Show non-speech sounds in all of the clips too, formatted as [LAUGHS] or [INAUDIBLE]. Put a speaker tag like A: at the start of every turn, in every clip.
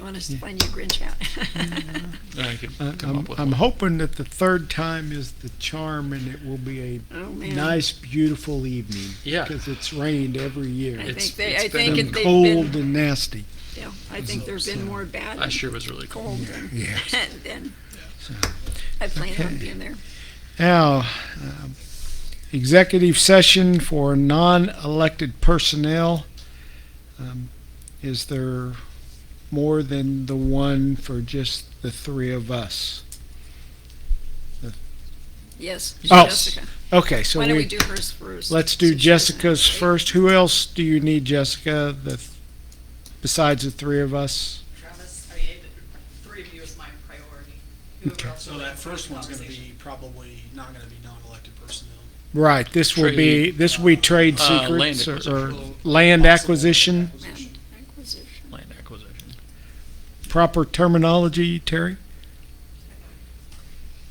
A: want us to find you a Grinch
B: [LAUGHS]
A: hat?
C: I could
B: I-
C: come
B: Uh, I'm,
C: up with
B: I'm
C: one.
B: hoping that the third time is the charm and it will be
A: Oh,
B: a
A: man.
B: nice, beautiful evening.
C: Yeah.
B: Because it's rained every
A: I
B: year.
C: It's-
A: think they, I
C: it's been
A: think
C: a
A: it-
B: And
A: they've
B: cold
A: been,
B: and nasty.
A: yeah, I think there've been more bad
C: Last year was really cool.
A: cold than,
B: Yeah.
A: than, [LAUGHS] I plan on
B: Okay.
A: being there.
B: Now, um, executive session for non-elected personnel. Um, Is there more than the one for just the three of us?
A: Yes,
B: Oh,
A: Jessica.
B: Okay, so
A: Why don't we
B: we,
A: do hers first?
B: let's do
A: since she doesn't
B: Jessica's
A: have to
B: first. Who else do you need, Jessica, the, besides the three of us?
D: Travis, I mean, the three of you is my priority. Whoever
B: Okay.
D: else
E: So
D: would like
E: that
D: to
E: first
D: have
E: one's gonna
D: conversation.
E: be probably not gonna be non-elected personnel.
B: Right, this will be,
C: Trade-
B: this will be trade
C: Uh, land
B: secrets or- or
C: acquisition.
B: land
E: Possible
B: acquisition,
A: say.
E: acquisition.
A: Land acquisition.
C: Land acquisition.
B: proper terminology, Terry?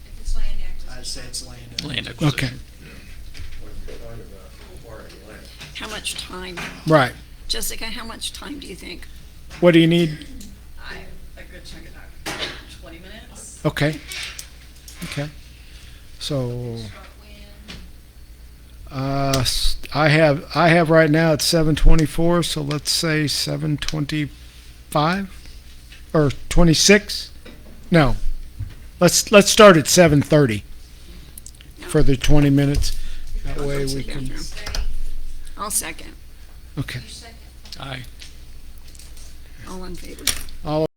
F: If it's land acquisition.
E: I'd say it's land.
C: Land
E: acquisition.
B: Okay,
C: acquisition.
A: How much time,
B: right.
A: Jessica, how much time do you think?
B: What do you need?
D: I, a good chunk of that, twenty minutes.
B: Okay, okay. So,
F: Start when,
B: uh, s- I have, I have right now it's seven twenty-four, so let's say seven twenty-five or twenty-six? No, let's, let's start at seven thirty for the twenty minutes. That way we can,
F: stay,
A: I'll second.
B: okay.
F: you second.
C: Aye.
A: All in favor?